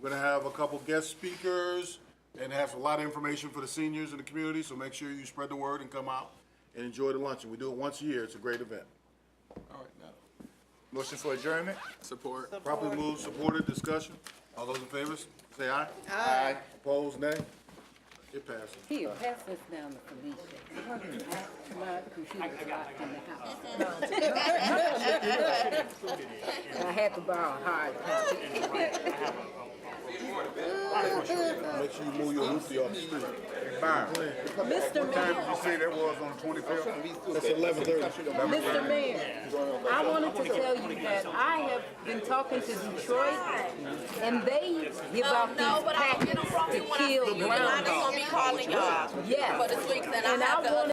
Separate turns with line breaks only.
We're gonna have a couple guest speakers and have a lot of information for the seniors in the community, so make sure you spread the word and come out and enjoy the luncheon. We do it once a year. It's a great event.
All right, now,
Motion for adjournment?
support.
Properly moved, supported, discussion. All those in favor, say aye. Aye. Opposed, nay? It passes.
Here, pass this down to Felicia. My computer's locked in the house. I had to borrow a hard copy.
Make sure you move your hoopty off the street.
Byron, time
Mr. Mayor,
did you say that was on twenty-fifth?
That's eleven thirty.
Mr. Mayor, I wanted to tell you that I have been talking to Detroit, and they give
No,
out
no,
these
but I'll get them
packets
from you
to
when I see you,
kill
and I'm just
groundhogs.
gonna be calling y'all
Yes.
for the sweeps, and I
And I
have
wanna
to